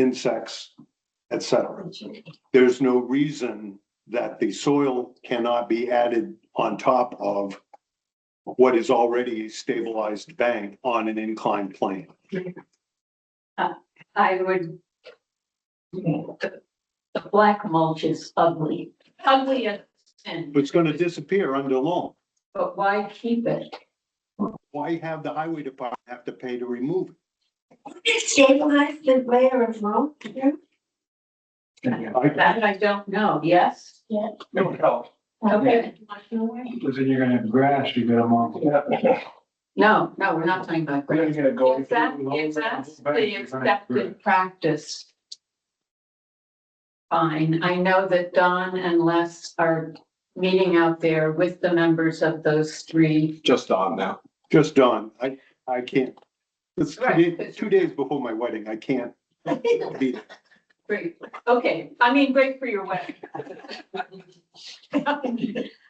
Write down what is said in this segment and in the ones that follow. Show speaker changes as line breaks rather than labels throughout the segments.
insects, et cetera. There's no reason that the soil cannot be added on top of what is already a stabilized bank on an inclined plane.
I would. The the black mulch is ugly, ugly as sin,
It's gonna disappear under loan.
but why keep it?
Why have the highway department have to pay to remove it?
Stabilize the layer of road here?
I-
That I don't know, yes?
It would help,
Okay,
because then you're gonna have grass, you're gonna mow. We're
no, no, we're not talking about
gonna
grass.
get a go.
If that, if that's the accepted practice. Fine, I know that Don and Les are meeting out there with the members of those three.
just on now.
Just done. I, I can't. It's two
Right.
days, two days before my wedding. I can't be
Great, okay, I mean, great for your wedding.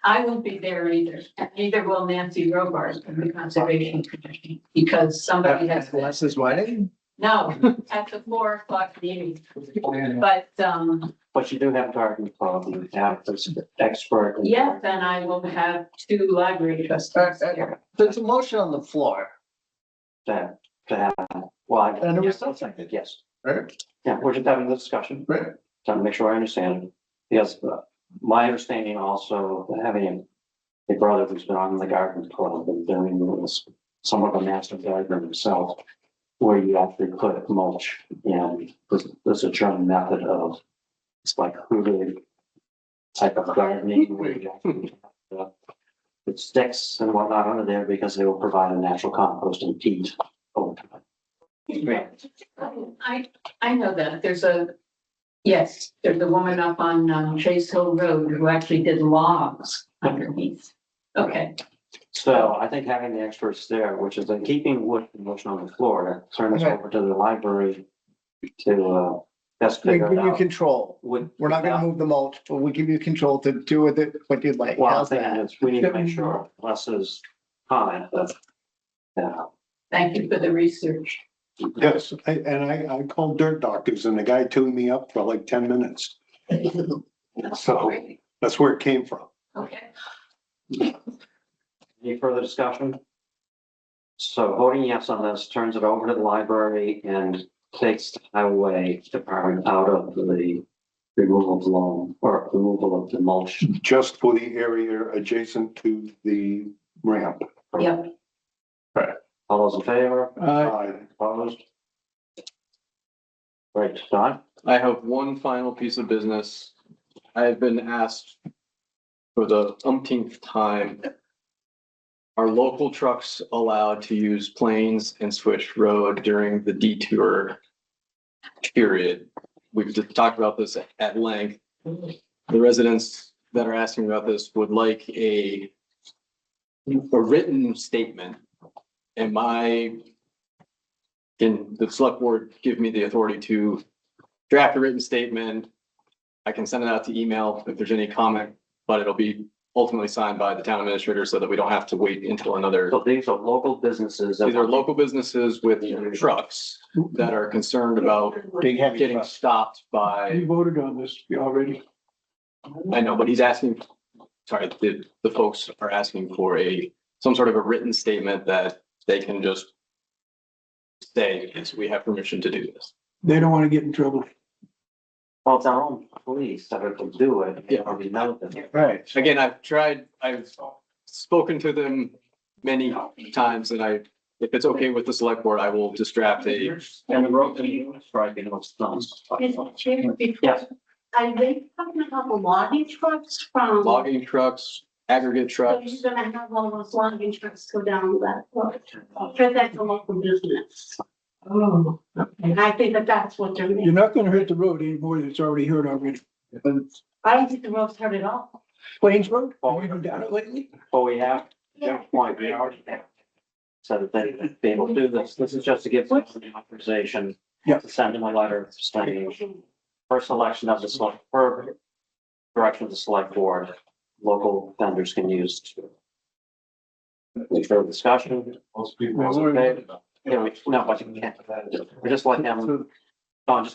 I won't be there either, neither will Nancy Robards from the Conservation Commission, because somebody has.
Les's wedding?
No, at the four o'clock meeting,
Plan.
but, um,
But you do have garden club, you have this expert.
yeah, then I will have two library trustees there.
There's a motion on the floor.
To, to have, well, I.
And it was still seconded.
Yes,
Right.
yeah, we're just having the discussion.
Right.
Trying to make sure I understand. it. Yes, but my understanding also, having a brother who's been on the garden club and doing this, somewhat of a master gardener himself, where you actually put mulch and this, this is a German method of, it's like hooded type of gardening. where you actually have, uh, It sticks and whatnot under there because they will provide a natural compost and peat over time.
I, I know that, there's a, yes, there's a woman up on um, Chase Hill Road who actually did logs underneath. Okay,
So I think having the experts there, which is in keeping with the motion on the floor, to turn this over to the library to, uh, best
We
figure
give
it
you
out.
control.
Would-
We're not gonna move the mulch, but we give you control to do with it what you'd like.
Well, I
How's
think
that?
it's, we need to make sure less is comment, but, yeah.
thank you for the research.
Yes, I- and I, I called dirt doctors and the guy tuned me up for like ten minutes. So
Great.
that's where it came from.
Okay,
Any further discussion? So voting yes on this turns it over to the library and takes the highway department out of the removal of loan or removal of the mulch.
Just for the area adjacent to the ramp.
Yep.
All those in favor?
Uh,
Opposed? Right, Don?
I have one final piece of business. I have been asked for the umpteenth time. Are local trucks allowed to use Plains and Swish Road during the detour period? We've just talked about this at length. The residents that are asking about this would like a a written statement. Am I can the select board give me the authority to draft a written statement. I can send it out to email if there's any comment, but it'll be ultimately signed by the town administrator so that we don't have to wait until another.
So these are local businesses. that-
These are local businesses with trucks that are concerned about
Big heavy
getting
truck.
stopped by,
We voted on this already.
I know, but he's asking, sorry, the, the folks are asking for a, some sort of a written statement that they can just say, yes, we have permission to do this.
They don't wanna get in trouble.
Well, it's our own police that are to do it.
Yeah.
Or we know them.
Right.
Again, I've tried, I've spoken to them many times and I, if it's okay with the select board, I will just draft a.
And the road, and striping was done.
Mr. Chair,
Yes.
are they coming up a logging trucks from?
Logging trucks, aggregate
So
trucks.
you're gonna have all those logging trucks go down that road, because that's a local business.
Oh,
And I think that that's what they're
You're
making.
not gonna hurt the road anymore, it's already hurt already.
I don't think the road's hurt at all.
Plains Road, have you been down it lately?
But we have, their point, we already have. So that they can be able to do this. This is just to give them the authorization.
Yeah.
To send them a letter stating first election of the select, per direction of the select board, local vendors can use. Any further discussion? Those in favor? Yeah, we- no, but you can't. We're just like them, Don, just